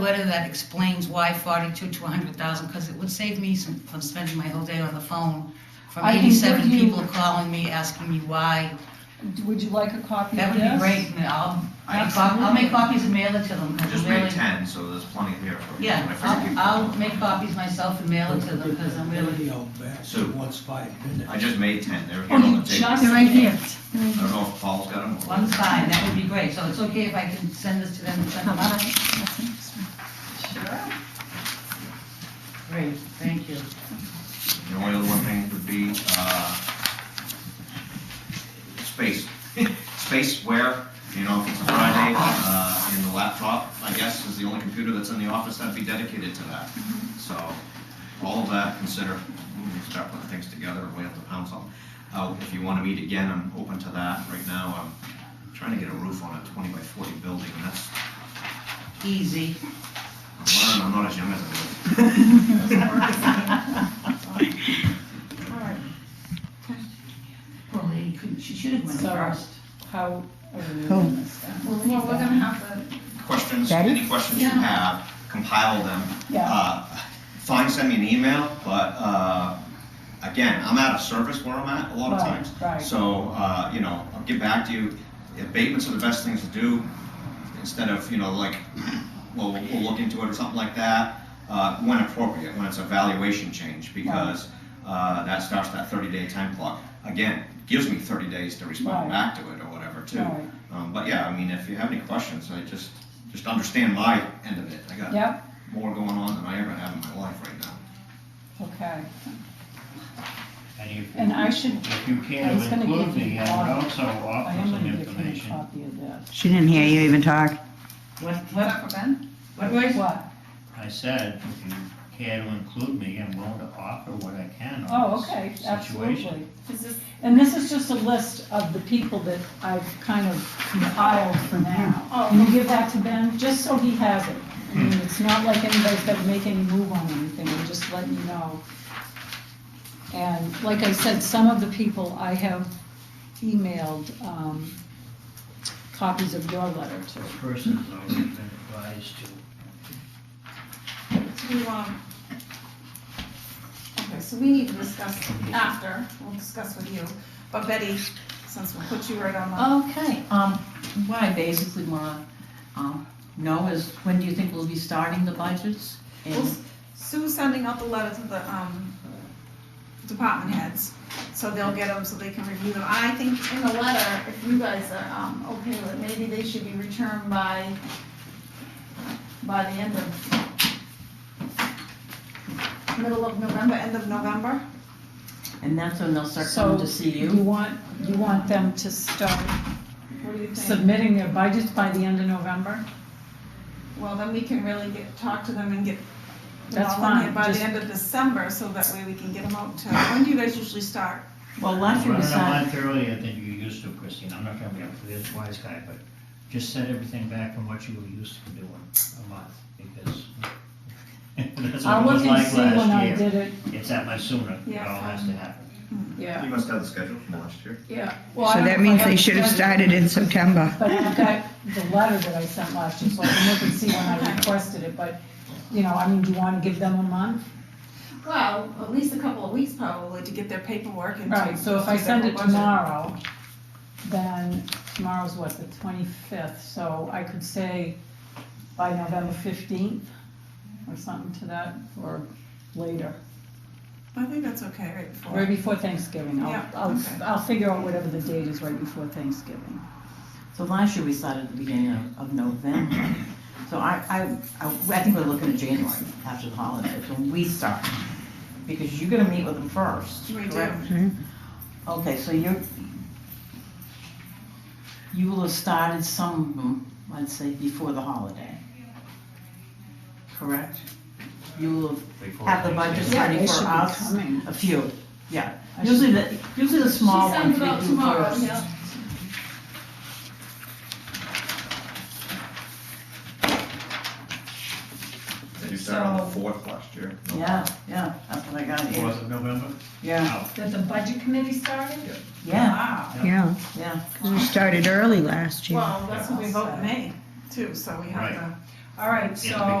letter that explains why forty-two to hundred thousand, because it would save me some, from spending my whole day on the phone from I can give eighty-seven you- people calling me, asking me why. Mm-hmm. Would you like a copy That of would be great, this? and I'll, I'll cop- I'll Absolutely. make copies and mail it to them. 'cause Just I'm make really- ten, so there's plenty here for you. Yeah, If I could- I'll, I'll make copies myself and mail it to them, because I'm really, Video back So- once five minutes. I just made ten, they're here on the table. Oh, just- I They're right here. don't know if Paul's got them. or- one sign, that would be great, so it's okay if I can send this to them and send them out? Sure. Great, thank you. The only other one thing would be, uh, space, space where, you know, if it's a Friday, uh, in the laptop, I guess, is the only computer that's in the office that'd be dedicated to that. So, all of that, consider, we can start putting things together, and we have to pound some. Uh, if you wanna meet again, I'm open to that, right now, I'm trying to get a roof on a twenty by forty building, and that's, Easy. I'm learning, I'm not as young as I was. Well, they couldn't, she should have went So- first. How are we Cool. doing this then? Well, we're gonna have questions, Ready? any questions you have, compile them. Yeah. Uh, Fine, send me an email, but, uh, again, I'm out of service where I'm at a lot of Right, times. right. So, uh, you know, I'll get back to you. Abatements are the best things to do, instead of, you know, like, well, we'll we'll look into it or something like that, uh, when appropriate, when it's a valuation change, because uh, that starts that 30-day time clock. Again, gives me 30 days to respond Right. back to it or whatever, too. Right. Um, But yeah, I mean, if you have any questions, I just, just understand my end of it. I got Yep, more going on than I ever have in my life right now. okay. And if, And I should, if you I care was to gonna include give you me, all- I would also I offer am some gonna give you a information. copy of this. She didn't hear you even talk. What, what, a, Ben? what, Royce? What? I said, if you care to include me, I'm willing to offer what I can Oh, on okay, this situation. absolutely. Is this, And this is just a list of the people that I've kind of compiled for now. Can you oh, give that to Ben, just so he has it? I mean, it's not like anybody's got to make any move on anything, I'm just letting you know. And like I said, some of the people I have emailed um, copies of your letter to. This person has already been advised to, do you, um, okay, so we need to discuss after, we'll discuss with you. But Betty, since we'll put you right on Okay, um, what I basically wanna, um, know is when do you think we'll be starting the budgets? the, well, And Sue's sending out the letter to the, um, department heads, so they'll get them, so they can review them. I think in the letter, if you guys are, um, okay with it, maybe they should be returned by, by the end of, middle of November, end of November? and that's when they'll start So, coming to see You you? want, you want them to start What do you think? submitting their budgets by the end of November? Well, then we can really get, talk to them and get them That's all in here fine, by the just- end of December, so that way we can get them out to, when do you guys usually start? Well, last year run we it a started, month earlier than you used to, Christine, I'm not gonna be a this wise guy, but just set everything back from what you were used to doing a month, because that's I'll what look it was and like see when I last year. did it, It's that much sooner, it Yeah. all has to happen. yeah, You must have the schedule from last year. yeah. Well, I So don't that know if means I they have should have scheduled- started in September. But I've got the letter that I sent last year, so I can look and see when I requested it, but, you know, I mean, do you wanna give them a month? Well, at least a couple of weeks probably to get their paperwork and. to- Right, so if I to send their it budget. tomorrow, then tomorrow's what, the twenty-fifth, so I could say by November fifteenth or something to that, or later, I think that's okay, right right before. before Thanksgiving. I'll- Yeah, I'll, okay. I'll figure out whatever the date is right before Thanksgiving. so last year we started at the beginning of, of November. So I, I, I I think we're looking at January after the holidays, when we start, because you're gonna meet with them first, We do. correct? Okay, so you're, you will have started some of them, let's say, before the holiday, correct? You will have Before have the Thanksgiving. budget Yeah, they ready should for be us, coming. a few, yeah. I should- Usually the, usually the small She sends ones it we out do tomorrow, first. yeah. Did you start on the fourth last year? No. Yeah, yeah, that's what I got here, Fourth of November? Oh, yeah, That the budget committee started? yeah, Wow. Yeah, yeah. 'cause we started early last year. Well, that's when we vote in May too, so we have Right. to. All right, Yeah, so